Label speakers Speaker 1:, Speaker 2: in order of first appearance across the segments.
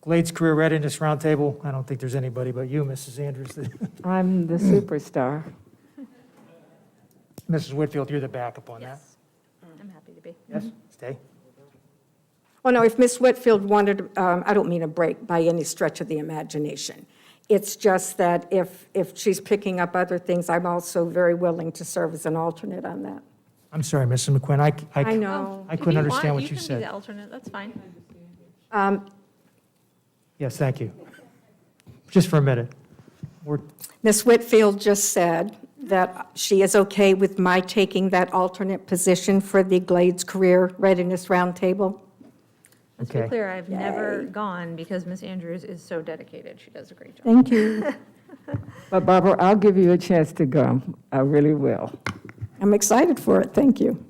Speaker 1: Glades Career Readiness Roundtable. I don't think there's anybody but you, Mrs. Andrews.
Speaker 2: I'm the
Speaker 3: Mm.
Speaker 2: superstar.
Speaker 1: Mrs. Whitfield, you're the backup on that.
Speaker 4: Yes,
Speaker 1: Mm.
Speaker 4: I'm happy to be.
Speaker 1: Yes. Stay.
Speaker 3: Well, no, if Miss Whitfield wanted, um, I don't mean a break by any stretch of the imagination. It's just that if, if she's picking up other things, I'm also very willing to serve as an alternate on that.
Speaker 1: I'm sorry, Mrs. McQuinn, I, c- I c-
Speaker 3: I know.
Speaker 1: I couldn't understand what you
Speaker 4: You can be
Speaker 1: said.
Speaker 4: the alternate, that's fine.
Speaker 3: Um,
Speaker 1: Yes, thank you. Just for a minute. We're,
Speaker 3: Miss Whitfield just said that she is okay with my taking that alternate position for the Glades Career Readiness Roundtable.
Speaker 4: Let's be
Speaker 1: Okay.
Speaker 4: clear, I've never gone because Miss Andrews is so dedicated. She does a great job.
Speaker 3: Thank you.
Speaker 2: But Barbara, I'll give you a chance to go. I really will.
Speaker 3: I'm excited for it, thank you.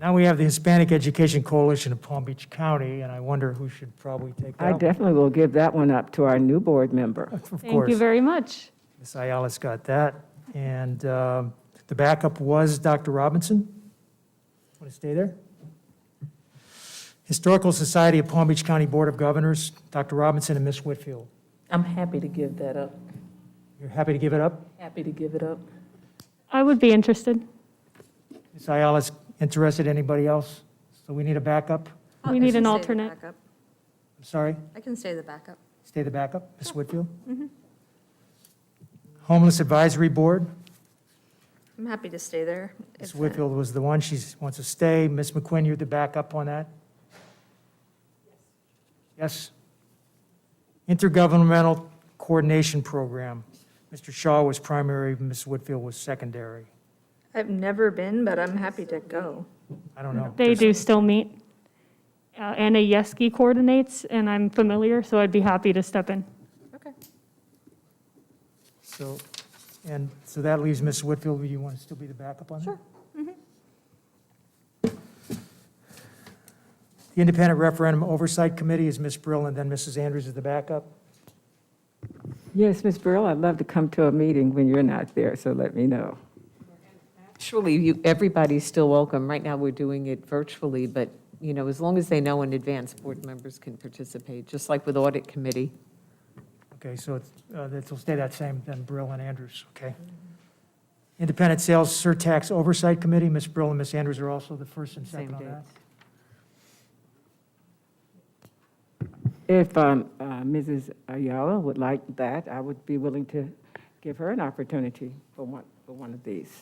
Speaker 1: now we have the Hispanic Education Coalition of Palm Beach County, and I wonder who should probably take
Speaker 2: I
Speaker 1: that. one.
Speaker 2: definitely will give that one up to our new board member.
Speaker 1: Of
Speaker 5: Thank you
Speaker 1: course,
Speaker 5: very much.
Speaker 1: Ms. Ayala's got that. And um, the backup was Dr. Robinson. Want to stay there? Historical Society of Palm Beach County Board of Governors, Dr. Robinson and Ms. Whitfield.
Speaker 6: I'm happy to give that up.
Speaker 1: You're happy to give it up?
Speaker 6: Happy to give it up.
Speaker 5: I would be interested.
Speaker 1: Ms. Ayala's interested, anybody else? So we need a backup?
Speaker 4: I'll-
Speaker 5: We
Speaker 4: I
Speaker 5: need
Speaker 4: can
Speaker 5: an
Speaker 4: stay the
Speaker 5: alternate.
Speaker 4: backup.
Speaker 1: I'm sorry?
Speaker 4: I can stay the backup.
Speaker 1: Stay the backup, Ms. Whitfield? Homeless Advisory Board,
Speaker 4: I'm happy to stay there.
Speaker 1: Ms.
Speaker 4: It's, uh,
Speaker 1: Whitfield was the one, she wants to stay. Ms. McQuinn, you're the backup on that? Yes? Intergovernmental Coordination Program, Mr. Shaw was primary, Ms. Whitfield was secondary.
Speaker 4: I've never been, but I'm happy to go.
Speaker 1: I don't know.
Speaker 5: They do still meet. Uh, Anna Yeski coordinates, and I'm familiar, so I'd be happy to step in.
Speaker 4: Okay.
Speaker 1: So, and so that leaves Ms. Whitfield, you want to still be the backup on that? Sure.
Speaker 5: Mm-hmm.
Speaker 1: The Independent Referendum Oversight Committee is Ms. Brill, and then Mrs. Andrews is the backup.
Speaker 2: Yes, Ms. Burrell, I'd love to come to a meeting when you're not there, so let me know.
Speaker 7: Actually, you, everybody's still welcome. Right now, we're doing it virtually, but, you know, as long as they know in advance, board members can participate, just like with audit committee.
Speaker 1: Okay, so it's, uh, it'll stay that same, then Brill and Andrews, okay? Independent Sales Surtax Oversight Committee, Ms. Brill and Ms. Andrews are also the first and
Speaker 7: Same
Speaker 1: second on
Speaker 7: dates.
Speaker 1: that.
Speaker 2: If um, uh, Mrs. Ayala would like that, I would be willing to give her an opportunity for one, for one of these.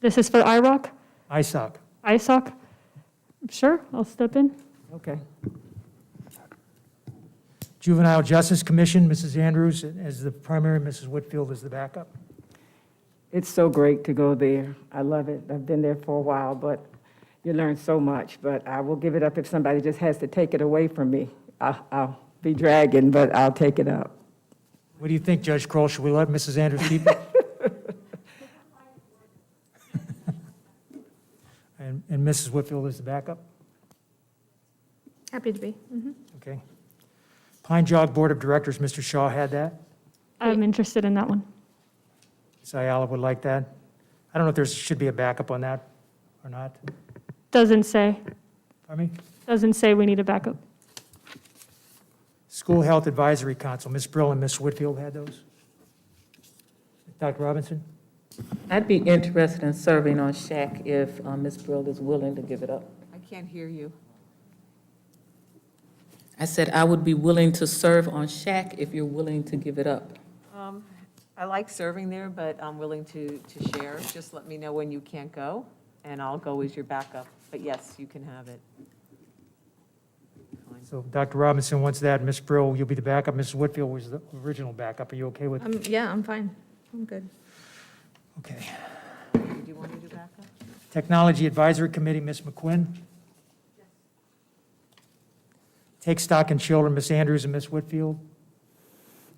Speaker 5: This is for IROC,
Speaker 1: ISOC,
Speaker 5: ISOC. Sure, I'll step in.
Speaker 2: Okay.
Speaker 1: Juvenile Justice Commission, Mrs. Andrews as the primary, Mrs. Whitfield is the backup.
Speaker 2: It's so great to go there. I love it. I've been there for a while, but you learn so much. But I will give it up if somebody just has to take it away from me. I'll, I'll be dragging, but I'll take it up.
Speaker 1: What do you think, Judge Kroll? Should we let Mrs. Andrews keep it? And and Mrs. Whitfield is the backup?
Speaker 4: Happy to be.
Speaker 1: Okay. Pine Jog Board of Directors, Mr. Shaw had that.
Speaker 5: I'm interested in that one.
Speaker 1: Ms. Ayala would like that. I don't know if there should be a backup on that or not.
Speaker 5: Doesn't say,
Speaker 1: Pardon me?
Speaker 5: doesn't say we need a backup.
Speaker 1: School Health Advisory Council, Ms. Brill and Ms. Whitfield had those. Dr. Robinson?
Speaker 6: I'd be interested in serving on SHAC if uh, Ms. Brill is willing to give it up.
Speaker 7: I can't hear you.
Speaker 6: I said I would be willing to serve on SHAC if you're willing to give it up.
Speaker 7: Um, I like serving there, but I'm willing to, to share. Just let me know when you can't go, and I'll go as your backup. But yes, you can have it.
Speaker 1: So Dr. Robinson wants that. Ms. Brill, you'll be the backup. Mrs. Whitfield was the original backup. Are you okay with?
Speaker 4: Um, yeah, I'm fine. I'm good.
Speaker 1: Okay.
Speaker 7: Do you want me to backup?
Speaker 1: Technology Advisory Committee, Ms. McQuinn? Take Stock in Children, Ms. Andrews and Ms. Whitfield?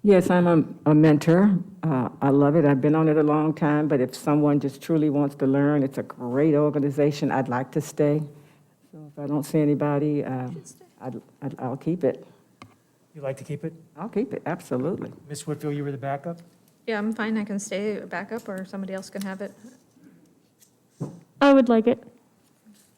Speaker 2: Yes, I'm a, a mentor. Uh, I love it. I've been on it a long time, but if someone just truly wants to learn, it's a great organization. I'd like to stay. So if I don't see anybody, uh, I'd, I'd, I'll keep it.
Speaker 1: You'd like to keep it?
Speaker 2: I'll keep it, absolutely.
Speaker 1: Ms. Whitfield, you were the backup?
Speaker 4: Yeah, I'm fine. I can stay a backup or somebody else can have it.
Speaker 5: I would like it.